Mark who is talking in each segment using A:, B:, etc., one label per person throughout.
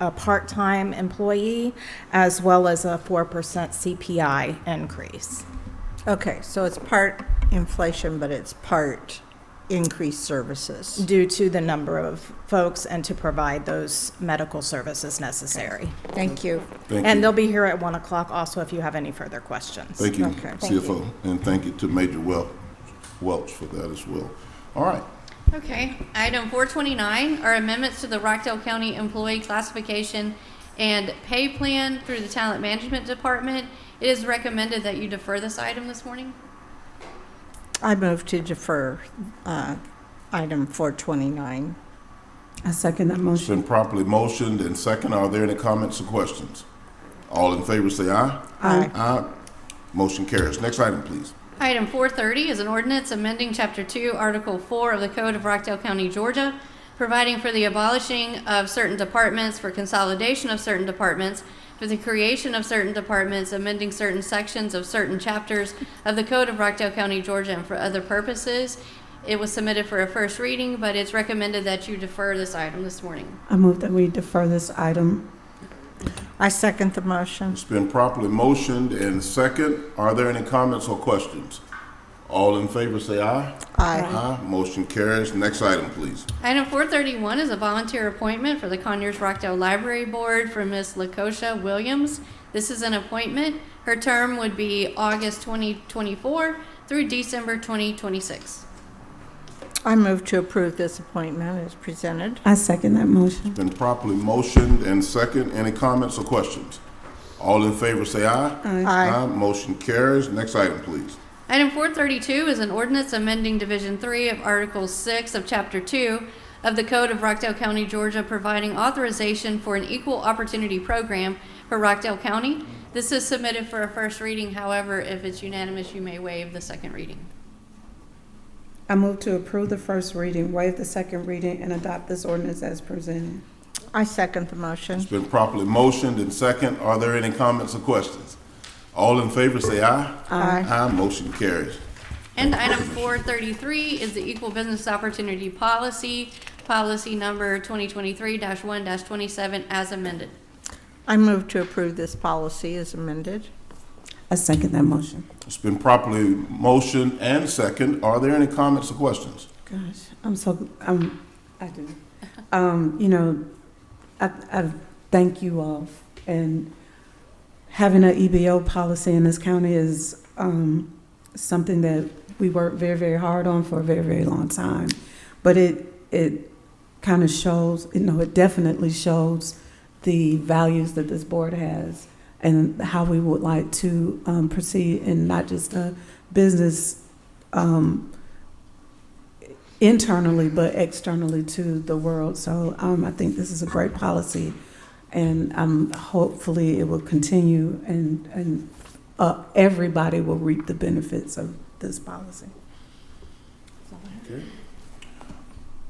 A: a part-time employee, as well as a 4% CPI increase.
B: Okay, so it's part inflation, but it's part increased services.
A: due to the number of folks and to provide those medical services necessary.
B: Thank you.
C: Thank
A: And
C: you.
A: they'll be here at 1 o'clock also if you have any further questions.
C: Thank you,
B: Okay.
C: CFO, and thank you to Major Wel- Welch for that as well. All right,
D: Okay, item four twenty-nine are amendments to the Rockdale County Employee Classification and Pay Plan through the Talent Management Department. It is recommended that you defer this item this morning.
B: I move to defer uh, item 429.
E: I second that
C: it's
E: motion.
C: been properly motioned and second. Are there any comments or questions? All in favor say aye.
B: Aye.
C: Aye. Motion carries. Next item, please.
D: Item four thirty is an ordinance amending Chapter Two, Article Four of the Code of Rockdale County, Georgia, providing for the abolishing of certain departments, for consolidation of certain departments, for the creation of certain departments, amending certain sections of certain chapters of the Code of Rockdale County, Georgia, and for other purposes. It was submitted for a first reading, but it's recommended that you defer this item this morning.
E: I move that we defer this item.
B: I second the motion.
C: It's been properly motioned and second. Are there any comments or questions? All in favor say aye.
B: Aye.
C: Aye. Motion carries. Next item, please.
D: Item four thirty-one is a volunteer appointment for the Conyers Rockdale Library Board for Miss Lakosha Williams. This is an appointment. Her term would be August twenty twenty-four through December twenty twenty-six.
B: I move to approve this appointment as presented.
E: I second that motion.
C: Been properly motioned and second. Any comments or questions? All in favor say aye.
B: Aye.
C: Motion carries. Next item, please.
D: Item four thirty-two is an ordinance amending Division Three of Article Six of Chapter Two of the Code of Rockdale County, Georgia, providing authorization for an equal opportunity program for Rockdale County. This is submitted for a first reading. However, if it's unanimous, you may waive the second reading.
E: I move to approve the first reading, waive the second reading, and adopt this ordinance as presented.
B: I second the motion.
C: It's been properly motioned and second. Are there any comments or questions? All in favor say aye.
B: Aye.
C: Aye. Motion carries.
D: And item four thirty-three is the Equal Business Opportunity Policy, policy number twenty twenty-three one twenty-seven as amended.
B: I move to approve this policy as amended.
E: I second that motion.
C: It's been properly motioned and second. Are there any comments or questions?
E: Gosh, I'm so, um, I do. Um, you know, I, I thank you all. And having an EBO policy in this county is, um, something that we worked very, very hard on for a very, very long time. But it, it kind of shows, you know, it definitely shows the values that this board has and how we would like to, um, proceed in not just a business, um, internally but externally to the world. So um, I think this is a great policy, and um, hopefully it will continue, and and uh, everybody will reap the benefits of this policy.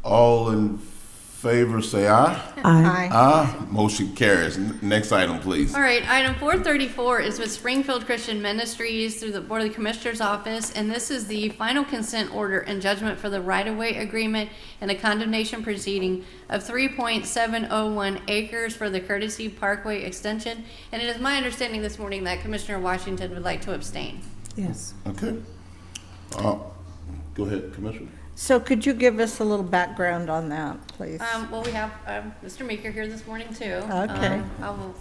C: All in favor say aye.
E: I
C: Aye. Motion carries. N- Next item, please.
D: All right, item four thirty-four is with Springfield Christian Ministries through the Board of Commissioners Office, and this is the final consent order and judgment for the right-of-way agreement and a condemnation proceeding of three point seven oh one acres for the Courtesy Parkway Extension. And it is my understanding this morning that Commissioner Washington would like to abstain.
E: yes.
C: Okay. Uh, Go ahead, Commissioner.
B: So could you give us a little background on that, please?
D: Um, well, we have, um, Mr. Meeker here this morning too.
B: Okay.
D: Um, I will,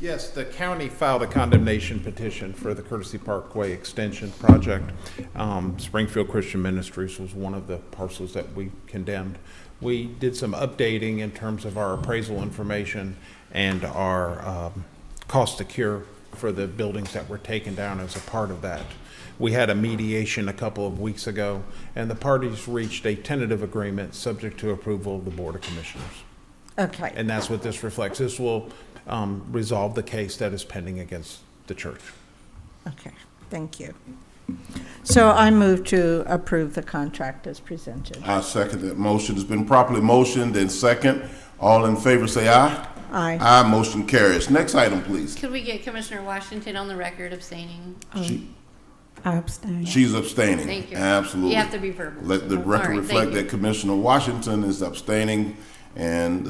F: Yes, the county filed a condemnation petition for the Courtesy Parkway Extension Project. Um, Springfield Christian Ministries was one of the parcels that we condemned. We did some updating in terms of our appraisal information and our um, cost to cure for the buildings that were taken down as a part of that. We had a mediation a couple of weeks ago, and the parties reached a tentative agreement subject to approval of the Board of Commissioners.
B: Okay,
F: And that's what this reflects. This will um, resolve the case that is pending against the church.
B: okay, thank you. So I move to approve the contract as presented.
C: I second that motion. It's been properly motioned and second. All in favor say aye.
B: Aye.
C: Aye. Motion carries. Next item, please.
D: could we get Commissioner Washington on the record abstaining?
C: She-
E: I abstain.
C: She's abstaining.
D: Thank you.
C: Absolutely.
D: You have to be verbal.
C: Let the
D: All
C: record
D: right,
C: reflect
D: thank you.
C: that Commissioner Washington is abstaining And